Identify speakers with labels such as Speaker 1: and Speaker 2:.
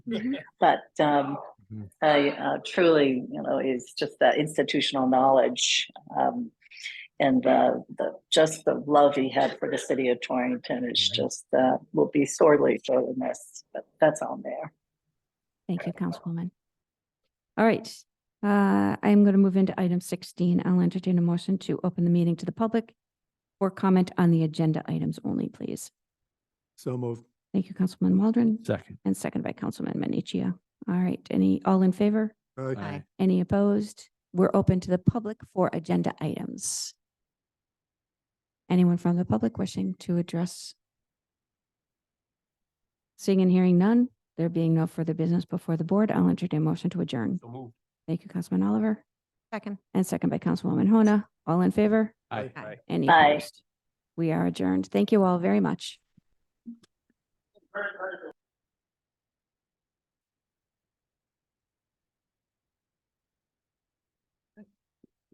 Speaker 1: but um,
Speaker 2: Mhm.
Speaker 1: I uh, truly, you know, is just that institutional knowledge um, and the, the just the love he had for the city of Torrington is
Speaker 2: Mhm.
Speaker 1: just uh, will be sorely sorely missed. But that's on there.
Speaker 3: Thank you, Councilwoman. All right, uh, I am going to move into item sixteen. I'll entertain a motion to open the meeting to the public or comment on the agenda items only, please.
Speaker 2: So moved.
Speaker 3: Thank you, Councilman Waldron,
Speaker 2: Second.
Speaker 3: and second by Councilman Menichia. All right, any, all in favor?
Speaker 2: Aye.
Speaker 3: Any opposed? We're open to the public for agenda items. Anyone from the public wishing to address? Seeing and hearing none, there being no further business before the board, I'll entertain a motion to adjourn.
Speaker 2: So moved.
Speaker 3: Thank you, Councilman Oliver,
Speaker 4: Second.
Speaker 3: and second by Councilwoman Hona. All in favor?
Speaker 2: Aye.
Speaker 4: Aye.
Speaker 3: Any
Speaker 1: Aye.
Speaker 3: opposed? We are adjourned. Thank you all very much.